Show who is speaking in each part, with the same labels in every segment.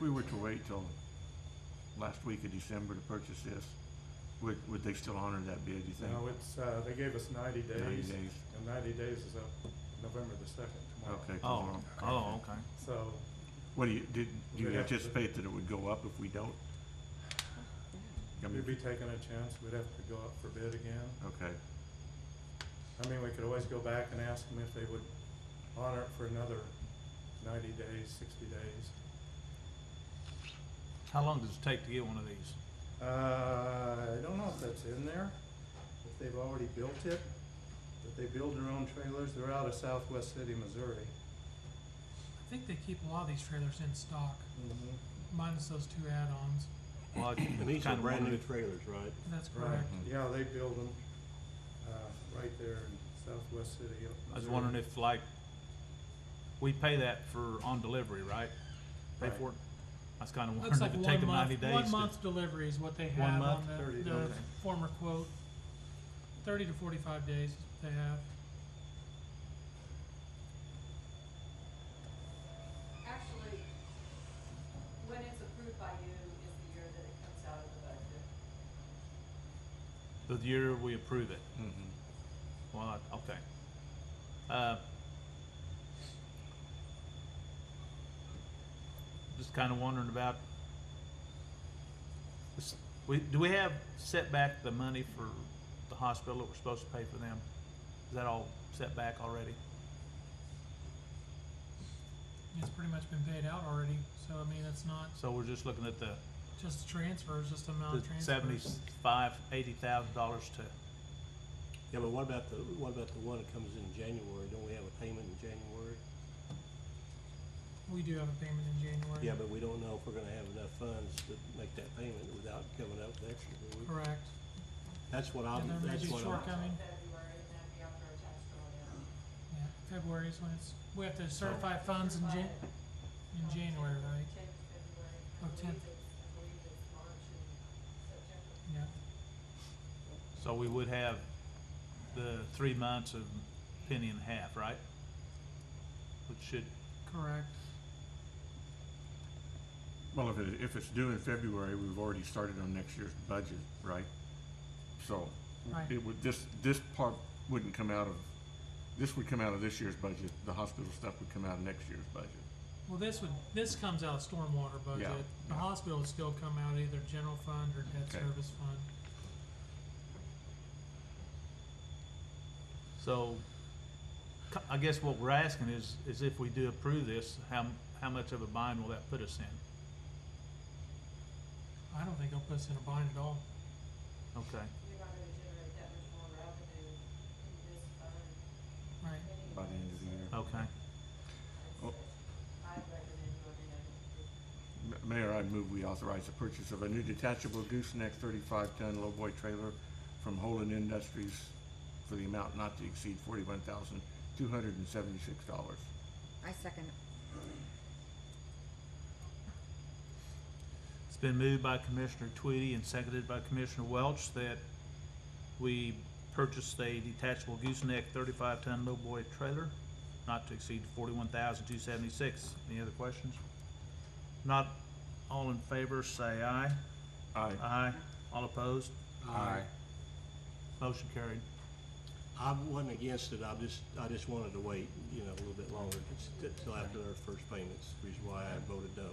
Speaker 1: we were to wait till last week of December to purchase this, would, would they still honor that bid, you think?
Speaker 2: No, it's, uh, they gave us ninety
Speaker 1: 90
Speaker 2: days, and ninety days is up November the second tomorrow.
Speaker 1: Okay.
Speaker 3: Oh,
Speaker 1: tomorrow.
Speaker 3: oh, okay.
Speaker 2: So,
Speaker 1: What do you, did, do
Speaker 2: We'd
Speaker 1: you
Speaker 2: have to-
Speaker 1: anticipate that it would go up if we don't? I mean,
Speaker 2: we'd be taking a chance, we'd have to go up for bid again.
Speaker 1: Okay,
Speaker 2: I mean, we could always go back and ask them if they would honor it for another ninety days, sixty days.
Speaker 3: How long does it take to get one of these?
Speaker 2: Uh, I don't know if that's in there, if they've already built it, but they build their own trailers, they're out of Southwest City, Missouri.
Speaker 4: I think they keep a lot of these trailers in stock, minus those two add-ons.
Speaker 3: Well,
Speaker 5: And these are brand new trailers, right?
Speaker 4: That's
Speaker 2: Right,
Speaker 4: correct.
Speaker 1: Mhm.
Speaker 2: yeah, they build them, uh, right there in Southwest City.
Speaker 3: I was wondering if like, we pay that for on delivery, right? Pay
Speaker 2: Right.
Speaker 3: for it? I was kinda
Speaker 4: Looks
Speaker 3: wondering
Speaker 4: like
Speaker 3: if it take
Speaker 4: one
Speaker 3: them ninety
Speaker 4: month,
Speaker 3: days to.
Speaker 4: one month delivery is what they
Speaker 3: One
Speaker 4: have
Speaker 3: month,
Speaker 4: on the,
Speaker 2: 30
Speaker 4: the
Speaker 3: days.
Speaker 4: former quote. Thirty to forty-five days is what they have.
Speaker 6: Actually, when it's approved by you is the year that it comes out of the budget.
Speaker 3: The year we approve it.
Speaker 1: mhm.
Speaker 3: Well, I- okay. Uh, Just kinda wondering about, this- we, do we have set back the money for the hospital that we're supposed to pay for them? Is that all set back already?
Speaker 4: It's pretty much been paid out already, so I mean, it's not
Speaker 3: So we're just looking at the,
Speaker 4: just transfers, just amount
Speaker 3: the
Speaker 4: of transfers.
Speaker 3: seventy-five, eighty thousand dollars to,
Speaker 5: Yeah, but what about the, what about the one that comes in January? Don't we have a payment in January?
Speaker 4: We do have a payment in January.
Speaker 5: Yeah, but we don't know if we're gonna have enough funds to make that payment without coming up with extra, do we?
Speaker 4: Correct.
Speaker 5: That's what I'm,
Speaker 4: And there may
Speaker 5: that's
Speaker 4: be
Speaker 5: what I'm,
Speaker 4: shortcoming.
Speaker 6: February, and that'd be after a tax bill, yeah.
Speaker 4: Yeah, February is when it's, we have to certify funds in Jan-
Speaker 6: Certified
Speaker 4: in
Speaker 6: on
Speaker 4: January,
Speaker 6: January-
Speaker 4: right?
Speaker 6: Tenth of February. I
Speaker 4: Oh,
Speaker 6: believe
Speaker 4: 10th.
Speaker 6: it's- I believe it's March and September.
Speaker 4: Yeah.
Speaker 3: so we would have the three months of penny and a half, right? Which should,
Speaker 4: Correct.
Speaker 1: Well, if it, if it's due in February, we've already started on next year's budget, right? So,
Speaker 4: Right.
Speaker 1: it would, this, this part wouldn't come out of, this would come out of this year's budget, the hospital stuff would come out of next year's budget.
Speaker 4: Well, this would, this comes out of stormwater budget.
Speaker 1: Yeah,
Speaker 4: The
Speaker 1: yeah.
Speaker 4: hospital would still come out of either general fund or debt
Speaker 1: Okay.
Speaker 4: service fund.
Speaker 3: so, c- I guess what we're asking is, is if we do approve this, how, m- how much of a bind will that put us in?
Speaker 4: I don't think it'll put us in a bind at all.
Speaker 3: Okay,
Speaker 6: You're not gonna generate that much more revenue in this fund
Speaker 4: Right.
Speaker 6: anyway.
Speaker 1: By the end of the year. Oh.
Speaker 3: okay.
Speaker 6: I recommend voting on it.
Speaker 1: M- Mayor, I move we authorize the purchase of a new detachable gooseneck thirty-five ton lowboy trailer from Holden Industries for the amount not to exceed forty-one thousand, two hundred and seventy-six dollars.
Speaker 7: I second.
Speaker 3: It's been moved by Commissioner Tweedy and seconded by Commissioner Welch that we purchase a detachable gooseneck thirty-five ton lowboy trailer, not to exceed forty-one thousand two seventy-six. Any other questions? Not all in favor, say aye.
Speaker 1: Aye.
Speaker 3: Aye. All opposed?
Speaker 5: I,
Speaker 3: Motion carried.
Speaker 5: I wasn't against it, I just, I just wanted to wait, you know, a little bit longer, until after their first payments, which is why I voted no.
Speaker 8: Um,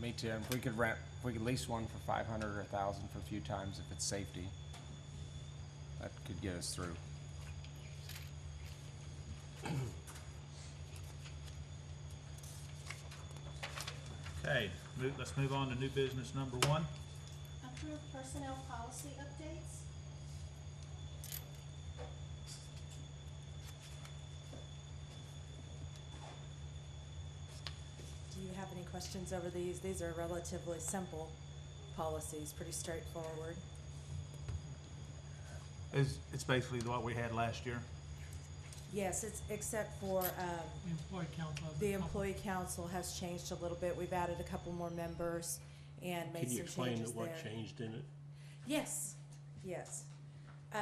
Speaker 8: Me too. If we could rent, if we could lease one for five hundred or a thousand for a few times if it's safety, that could get us through.
Speaker 3: Okay, move, let's move on to new business number one.
Speaker 9: Approve personnel policy updates.
Speaker 10: Do you have any questions over these? These are relatively simple policies, pretty straightforward.
Speaker 3: It's, it's basically what we had last year.
Speaker 10: Yes, it's, except for, um,
Speaker 4: The employee council has a
Speaker 10: the
Speaker 4: couple-
Speaker 10: employee council has changed a little bit. We've added a couple more members and made
Speaker 5: Can you
Speaker 10: some
Speaker 5: explain
Speaker 10: changes there.
Speaker 5: what changed in it?
Speaker 10: Yes, yes. Um,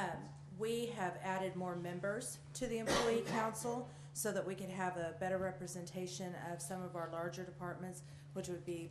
Speaker 10: we have added more members to the employee council so that we could have a better representation of some of our larger departments, which would be